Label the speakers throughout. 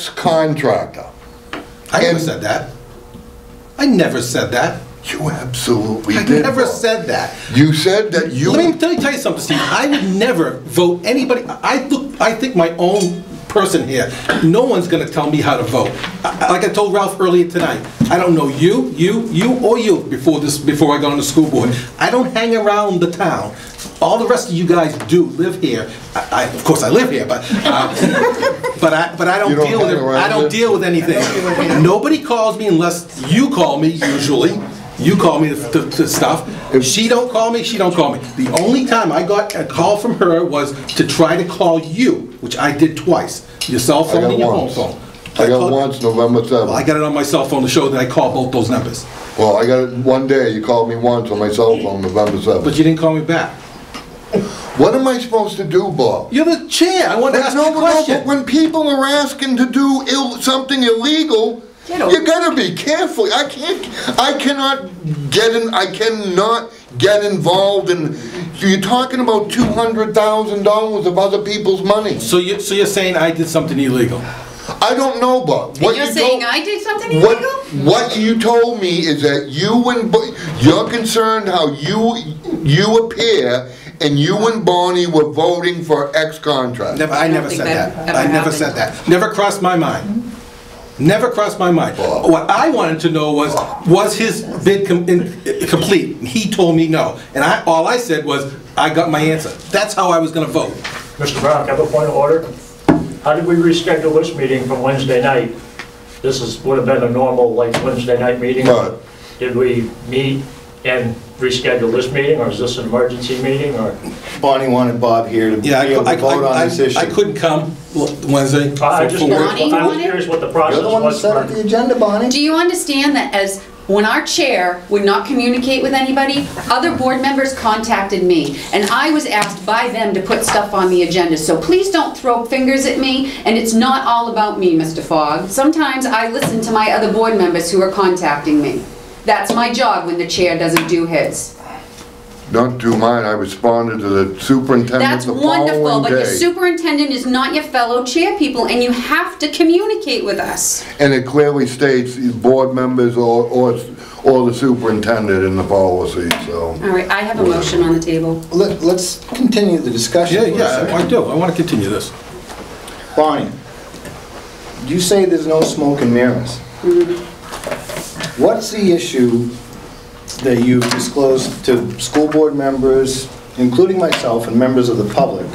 Speaker 1: ex-contractor.
Speaker 2: I never
Speaker 1: And-
Speaker 2: said that. I never said that.
Speaker 1: You absolutely
Speaker 2: I
Speaker 1: did.
Speaker 2: never
Speaker 1: Bob.
Speaker 2: said that.
Speaker 1: You said that you.
Speaker 2: Let me, let me tell you something, Steve. I would never vote anybody. I I look. I think my own person here. No one's going to tell me how to vote. I, I- like I told Ralph earlier tonight, I don't know you, you, you, or you before this. Before I got on the school board, I don't hang around the town. All the rest of you guys do live here. I, I of course I live here, but uh, but I but I don't,
Speaker 1: You don't
Speaker 2: deal with
Speaker 1: hang
Speaker 2: it.
Speaker 1: around
Speaker 2: I don't
Speaker 1: here?
Speaker 2: deal with anything. Nobody calls me unless you call me usually. You call me to, to- to stuff. She don't call me, she don't call me. The only time I got a call from her was to try to call you, which I did twice, your cell
Speaker 1: I
Speaker 2: phone
Speaker 1: got
Speaker 2: and your home
Speaker 1: once.
Speaker 2: phone.
Speaker 1: I got
Speaker 2: called-
Speaker 1: once, November
Speaker 2: Well, I
Speaker 1: 7th.
Speaker 2: got it on my cell phone to show that I called both those numbers,
Speaker 1: Well, I got it one day. You called me once on my cell phone, November
Speaker 2: but
Speaker 1: 7th.
Speaker 2: you didn't call me back.
Speaker 1: What am I supposed to do, Bob?
Speaker 2: You're the chair, I wanted to
Speaker 1: But
Speaker 2: ask you
Speaker 1: no,
Speaker 2: a
Speaker 1: but no, but
Speaker 2: question.
Speaker 1: when people are asking to do ill, something illegal,
Speaker 3: Get over
Speaker 1: you gotta be careful. I can't, I cannot get in, I cannot get involved in, so you're talking about two hundred thousand dollars of other people's money.
Speaker 2: So you, so you're saying I did something illegal?
Speaker 1: I don't know, Bob. What
Speaker 3: You're
Speaker 1: you
Speaker 3: saying
Speaker 1: told-
Speaker 3: I did something
Speaker 1: What,
Speaker 3: illegal?
Speaker 1: what you told me is that you and, Bo- you're concerned how you, you appear and you and Bonnie were voting for X contract.
Speaker 2: Never, I
Speaker 3: don't
Speaker 2: never
Speaker 3: think
Speaker 2: said
Speaker 3: that
Speaker 2: that.
Speaker 3: ever
Speaker 2: I never
Speaker 3: happened.
Speaker 2: said that. Never crossed my mind. Never crossed my mind. What I wanted to know was, was his bid com- in- complete? He told me no. And I, all I said was, I got my answer. That's how I was gonna vote.
Speaker 4: Mr. Brown, can I have a point of order? How did we reschedule this meeting from Wednesday night? This is, would have been a normal, like, Wednesday night meeting.
Speaker 1: Right.
Speaker 4: Did we meet and reschedule this meeting, or is this an emergency meeting, or?
Speaker 5: Bonnie wanted Bob here to be
Speaker 2: Yeah, I,
Speaker 5: able
Speaker 2: cou- I,
Speaker 5: to vote on this
Speaker 2: I- I
Speaker 5: issue.
Speaker 2: couldn't come Wednesday for
Speaker 4: I I
Speaker 2: for
Speaker 4: just,
Speaker 2: work.
Speaker 3: Bonnie
Speaker 4: I was
Speaker 3: wanted-
Speaker 4: curious what the process
Speaker 5: You're the one that
Speaker 4: was.
Speaker 5: set up the agenda, Bonnie.
Speaker 3: Do you understand that as, when our chair would not communicate with anybody, other board members contacted me, and I was asked by them to put stuff on the agenda, so please don't throw fingers at me, and it's not all about me, Mr. Fogg. Sometimes I listen to my other board members who are contacting me. That's my job when the chair doesn't do his.
Speaker 1: Not to mine, I responded to the superintendent
Speaker 3: That's
Speaker 1: the following day.
Speaker 3: wonderful, but your superintendent is not your fellow chair people, and you have to communicate with us.
Speaker 1: And it clearly states the board members or, or, or the superintendent in the policy, so.
Speaker 3: All right, I have a motion on the table.
Speaker 5: Let, let's continue the discussion
Speaker 2: Yeah,
Speaker 5: for a
Speaker 2: yeah, I
Speaker 5: second.
Speaker 2: do. I wanna continue this.
Speaker 5: Bonnie, you say there's no smoke and mirrors.
Speaker 3: Mm-hmm.
Speaker 5: What's the issue that you disclosed to school board members, including myself and members of the public,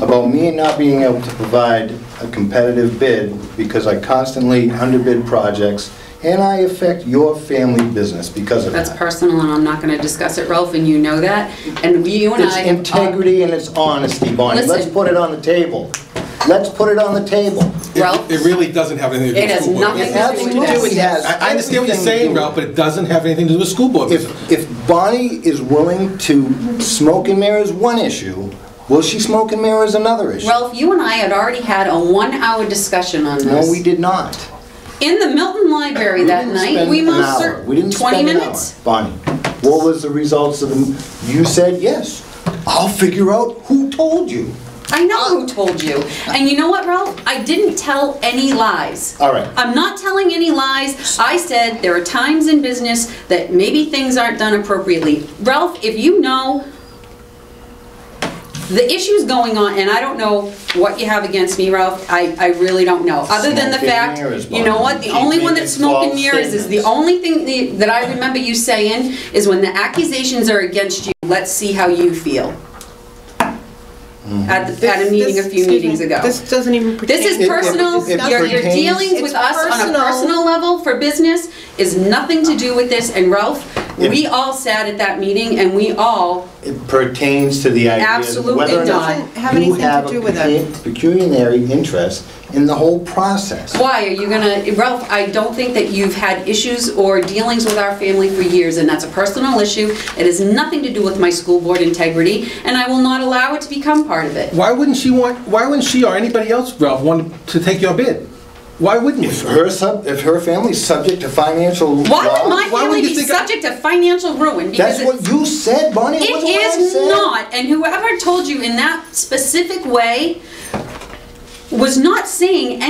Speaker 5: about me not being able to provide a competitive bid because I constantly underbid projects and I affect your family business because of that?
Speaker 3: That's personal, and I'm not gonna discuss it, Ralph, and you know that, and you and
Speaker 5: It's
Speaker 3: I...
Speaker 5: integrity and it's honesty, Bonnie. Let's
Speaker 3: Listen.
Speaker 5: put it on the table. Let's put it on the table.
Speaker 2: It-
Speaker 3: Ralph?
Speaker 2: It really doesn't have anything to do
Speaker 3: It
Speaker 2: with
Speaker 3: has
Speaker 2: school board.
Speaker 3: nothing
Speaker 5: It has to do with that.
Speaker 2: I, I understand what you're
Speaker 5: Everything to
Speaker 2: saying,
Speaker 5: do.
Speaker 2: Ralph, but it doesn't have anything to do with school board.
Speaker 5: If, if Bonnie is willing to smoke and mirrors one issue, will she smoke and mirrors another issue?
Speaker 3: Ralph, you and I had already had a one-hour discussion on this.
Speaker 5: No, we did not.
Speaker 3: In the Milton Library that
Speaker 5: We didn't
Speaker 3: night,
Speaker 5: spend
Speaker 3: we
Speaker 5: an
Speaker 3: most
Speaker 5: hour.
Speaker 3: cer...
Speaker 5: We didn't
Speaker 3: 20
Speaker 5: spend an hour.
Speaker 3: minutes?
Speaker 5: Bonnie, what was the results of the, you said, yes, I'll figure out who told you.
Speaker 3: I know who told you. And you know what, Ralph? I didn't tell any lies.
Speaker 5: All right.
Speaker 3: I'm not telling any lies. I said there are times in business that maybe things aren't done appropriately. Ralph, if you know the issues going on, and I don't know what you have against me, Ralph, I, I really don't know. Other than the
Speaker 5: Smoke and
Speaker 3: fact,
Speaker 5: mirrors,
Speaker 3: you know
Speaker 5: Bonnie.
Speaker 3: what, the
Speaker 5: Keep
Speaker 3: only one
Speaker 5: making
Speaker 3: that's smoking
Speaker 5: false
Speaker 3: mirrors is the
Speaker 5: statements.
Speaker 3: only thing the- that I remember you saying is when the accusations are against you, let's see how you feel. At, the- at a
Speaker 6: This-
Speaker 3: meeting a few
Speaker 6: this- excuse me,
Speaker 3: meetings ago.
Speaker 6: This doesn't even pertain.
Speaker 3: This is
Speaker 5: It-
Speaker 3: personal,
Speaker 5: it
Speaker 3: your, your
Speaker 5: pertains-
Speaker 3: dealings with
Speaker 6: It's
Speaker 3: us on a
Speaker 6: personal.
Speaker 3: personal level for business is nothing to do with this, and Ralph, we all sat at that meeting and we all,
Speaker 5: It pertains to the idea of
Speaker 3: Absolutely
Speaker 5: whether or
Speaker 3: not.
Speaker 5: not
Speaker 6: Doesn't have
Speaker 5: you
Speaker 6: anything to
Speaker 5: have a
Speaker 6: do with it.
Speaker 5: pecu- pecuniary interest in the whole process.
Speaker 3: why are you gonna, Ralph, I don't think that you've had issues or dealings with our family for years, and that's a personal issue. It has nothing to do with my school board integrity, and I will not allow it to become part of it.
Speaker 2: Why wouldn't she want, why wouldn't she or anybody else, Ralph, want to take your bid? Why wouldn't
Speaker 5: If
Speaker 2: you?
Speaker 5: her sub, if her family's subject to financial law.
Speaker 3: Why would my
Speaker 2: why would
Speaker 3: family
Speaker 2: you
Speaker 3: be
Speaker 2: think I-
Speaker 3: subject to financial ruin? Because
Speaker 5: That's
Speaker 3: it's
Speaker 5: what you said, Bonnie, it
Speaker 3: It
Speaker 5: wasn't what I
Speaker 3: is
Speaker 5: said.
Speaker 3: not, and whoever told you in that specific way was not saying